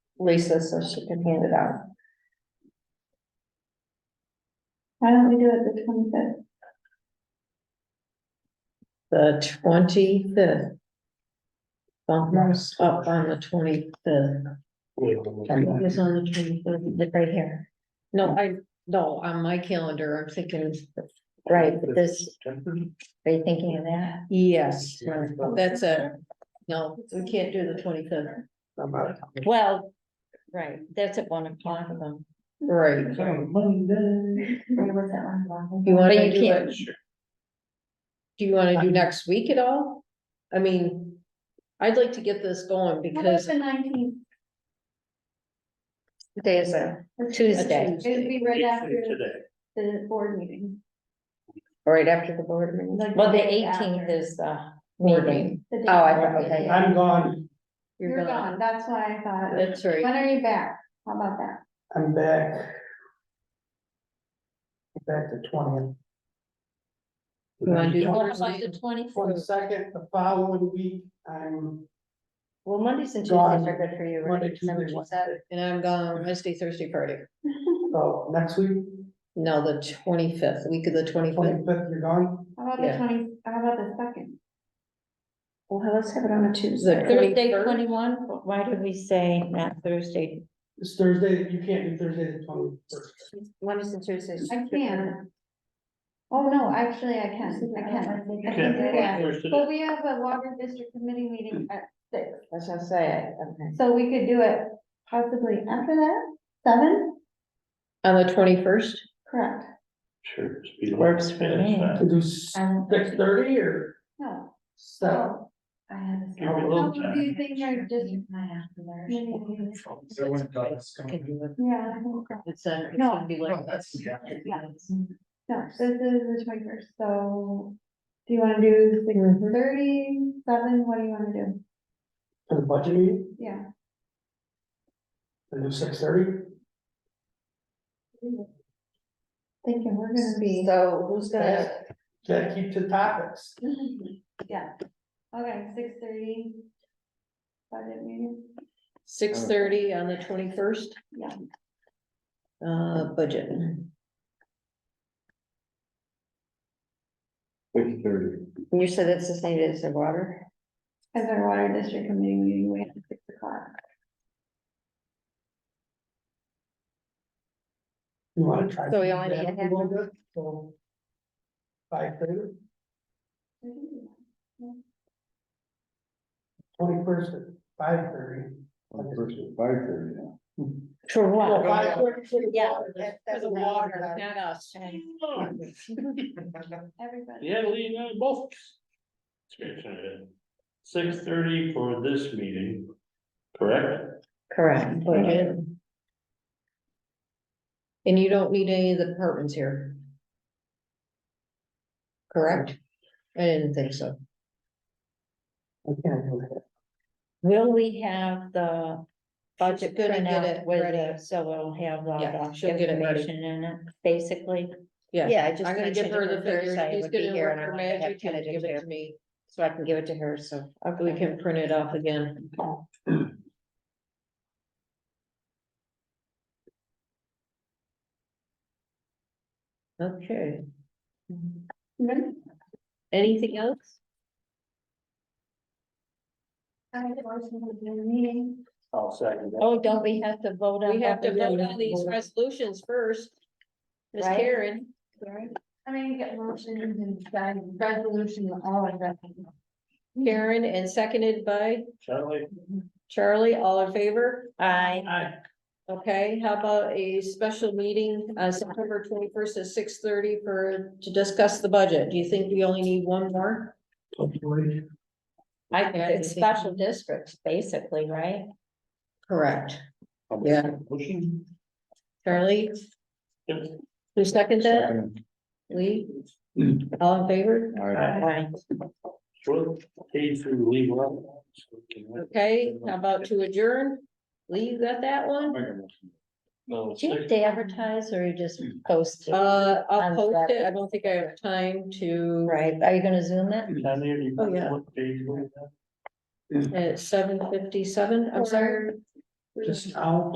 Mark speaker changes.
Speaker 1: Lisa so she can hand it out.
Speaker 2: Why don't we do it the twenty-fifth?
Speaker 3: The twenty-fifth. Bumpers up on the twenty-fifth.
Speaker 1: It's on the tree, it's right here.
Speaker 3: No, I, no, on my calendar, I'm thinking,
Speaker 1: Right, but this, are you thinking of that?
Speaker 3: yes, that's a, no, we can't do the twenty-fifth.
Speaker 1: Well, right, that's at one o'clock though.
Speaker 3: Right.
Speaker 4: Monday.
Speaker 2: Where was that one?
Speaker 3: You
Speaker 1: But you
Speaker 3: wanna do
Speaker 1: can't-
Speaker 3: it? Do you wanna do next week at all? I mean, I'd like to get this going
Speaker 2: How about
Speaker 3: because,
Speaker 2: the nineteenth?
Speaker 1: What Day is it? Tuesday,
Speaker 2: It'd be right after
Speaker 4: Today.
Speaker 2: the board meeting.
Speaker 1: or right after the board meeting?
Speaker 2: Like
Speaker 1: Well, the
Speaker 2: the day after.
Speaker 1: eighteenth is the
Speaker 3: Board
Speaker 1: meeting.
Speaker 2: the day
Speaker 1: Oh, I
Speaker 2: after.
Speaker 1: thought, okay.
Speaker 4: I'm gone,
Speaker 2: You're gone, that's why I thought,
Speaker 3: that's right,
Speaker 2: when are you back? How about that?
Speaker 4: I'm back. Back to twentieth.
Speaker 3: You wanna do-
Speaker 1: What about the
Speaker 4: For the
Speaker 1: twenty-fourth?
Speaker 4: second, the following week, I'm
Speaker 1: Well, Mondays and Tuesdays
Speaker 4: Gone.
Speaker 1: are good for you, right?
Speaker 4: Monday,
Speaker 1: Is that what
Speaker 4: Tuesday,
Speaker 1: you
Speaker 4: Wednesday,
Speaker 1: said?
Speaker 3: and I'm gone Wednesday, Thursday party.
Speaker 4: so oh, next week,
Speaker 3: No, the twenty-fifth, week of the twenty-fifth,
Speaker 4: twenty-fifth, you're gone.
Speaker 2: How about the
Speaker 3: Yeah.
Speaker 2: twenty, how about the second?
Speaker 1: Well, let's have it on a
Speaker 3: Tuesday.
Speaker 1: Thursday
Speaker 3: 23rd?
Speaker 1: twenty-one, why did we say not Thursday?
Speaker 4: It's Thursday, you can't do Thursday the twenty-first.
Speaker 1: Mondays and Tuesdays.
Speaker 2: I can. Oh, no, actually, I can, I can. I can do that.
Speaker 4: Well,
Speaker 2: But we have a water district committee meeting at six,
Speaker 1: That's what I'm saying, okay.
Speaker 2: so we could do it possibly after that, seven?
Speaker 3: on the twenty-first,
Speaker 2: Correct.
Speaker 5: Sure. just be like-
Speaker 1: Works for me.
Speaker 4: To do six thirty or
Speaker 2: No. Oh,
Speaker 4: seven,
Speaker 2: I have. a-
Speaker 5: Give me a
Speaker 2: How
Speaker 5: little
Speaker 2: do you
Speaker 5: time.
Speaker 2: think you're just?
Speaker 6: So when Douglas
Speaker 3: can
Speaker 6: coming?
Speaker 3: do it.
Speaker 2: Yeah, I think so.
Speaker 3: It's uh it's
Speaker 2: No.
Speaker 3: gonna be like.
Speaker 6: Oh, that's- yeah.
Speaker 2: no, this is the twenty first, so do you wanna do six
Speaker 3: Mhm.
Speaker 2: thirty, seven, what do you wanna do?
Speaker 4: for the budget meeting,
Speaker 2: Yeah,
Speaker 4: to do six thirty.
Speaker 2: thinking we're gonna be,
Speaker 1: So who's
Speaker 3: uh,
Speaker 1: gonna,
Speaker 4: Gotta keep to topics.
Speaker 2: yeah, okay, six thirty. Budget meeting,
Speaker 3: Six thirty on the twenty-first,
Speaker 2: yeah,
Speaker 3: uh, budget.
Speaker 5: Quick thirty.
Speaker 1: you said it's the same as the water?
Speaker 2: as our water district committee meeting, we have six o'clock.
Speaker 4: You wanna try?
Speaker 1: So we only need to have-
Speaker 4: Five thirty,
Speaker 2: We can do that.
Speaker 4: twenty-first at five thirty.
Speaker 5: Well, first at Five thirty now.
Speaker 1: For
Speaker 4: Well, five thirty for the
Speaker 1: Oh, Yeah,
Speaker 4: water,
Speaker 1: that-
Speaker 4: for
Speaker 1: that's
Speaker 4: the
Speaker 1: not-
Speaker 4: water.
Speaker 3: Not us.
Speaker 2: Everybody.
Speaker 5: Yeah, Lee and I both. Six thirty for this meeting, correct?
Speaker 1: Correct.
Speaker 3: Budget. And you don't need any of the departments here. Correct? I didn't think so.
Speaker 1: Will we have the budget
Speaker 3: She's gonna get
Speaker 1: printout
Speaker 3: it
Speaker 1: with
Speaker 3: ready.
Speaker 1: the, so we'll have all
Speaker 3: Yeah,
Speaker 1: the
Speaker 3: she'll get it ready.
Speaker 1: information in it, basically?
Speaker 3: Yeah,
Speaker 1: Yeah, I just
Speaker 3: I'm gonna give
Speaker 1: mentioned
Speaker 3: her the
Speaker 1: it
Speaker 3: figures.
Speaker 1: Thursday, I
Speaker 3: She's
Speaker 1: would be
Speaker 3: gonna
Speaker 1: here
Speaker 3: work
Speaker 1: and I
Speaker 3: her
Speaker 1: wanted to have
Speaker 3: magic and
Speaker 1: Kennedy
Speaker 3: give it
Speaker 1: there,
Speaker 3: to me.
Speaker 1: So I can give it to her, so.
Speaker 3: We can print it off again. Okay, anything else?
Speaker 2: I have a motion to adjourn the meeting.
Speaker 5: I'll second that.
Speaker 1: Oh, don't we have to vote on?
Speaker 3: We have to
Speaker 1: what we're
Speaker 3: vote on
Speaker 1: doing?
Speaker 3: these resolutions first. Ms.
Speaker 1: Right?
Speaker 3: Karen,
Speaker 2: I mean, you get motions and guide resolution, all of that.
Speaker 3: Karen and seconded by
Speaker 5: Charlie?
Speaker 3: Charlie, all in favor?
Speaker 1: Aye.
Speaker 4: Aye.
Speaker 3: Okay, how about a special meeting, uh, September twenty-first at six thirty for, to discuss the budget? Do you think we only need one more?
Speaker 1: I,
Speaker 3: Yeah,
Speaker 1: it's
Speaker 3: I think-
Speaker 1: special districts, basically, right?
Speaker 3: Correct. Yeah.
Speaker 5: Motion?
Speaker 3: Charlie,
Speaker 5: Yep.
Speaker 3: who seconded that?
Speaker 5: Second.
Speaker 3: Lee? All in favor?
Speaker 5: All right.
Speaker 1: Aye.
Speaker 5: Short, pay through legal.
Speaker 3: Okay, how about to adjourn? Lee, you got that one?
Speaker 5: No.
Speaker 1: Do you have
Speaker 5: six-
Speaker 1: to advertise or you just post it?
Speaker 3: Uh, I'll
Speaker 1: On
Speaker 3: post it.
Speaker 1: Saturday.
Speaker 3: I don't think I have time to,
Speaker 1: Right, are you gonna zoom it?
Speaker 5: Down there, you-
Speaker 3: Oh, yeah.
Speaker 5: what page was that?
Speaker 3: at seven fifty-seven, I'm sorry.
Speaker 4: just now?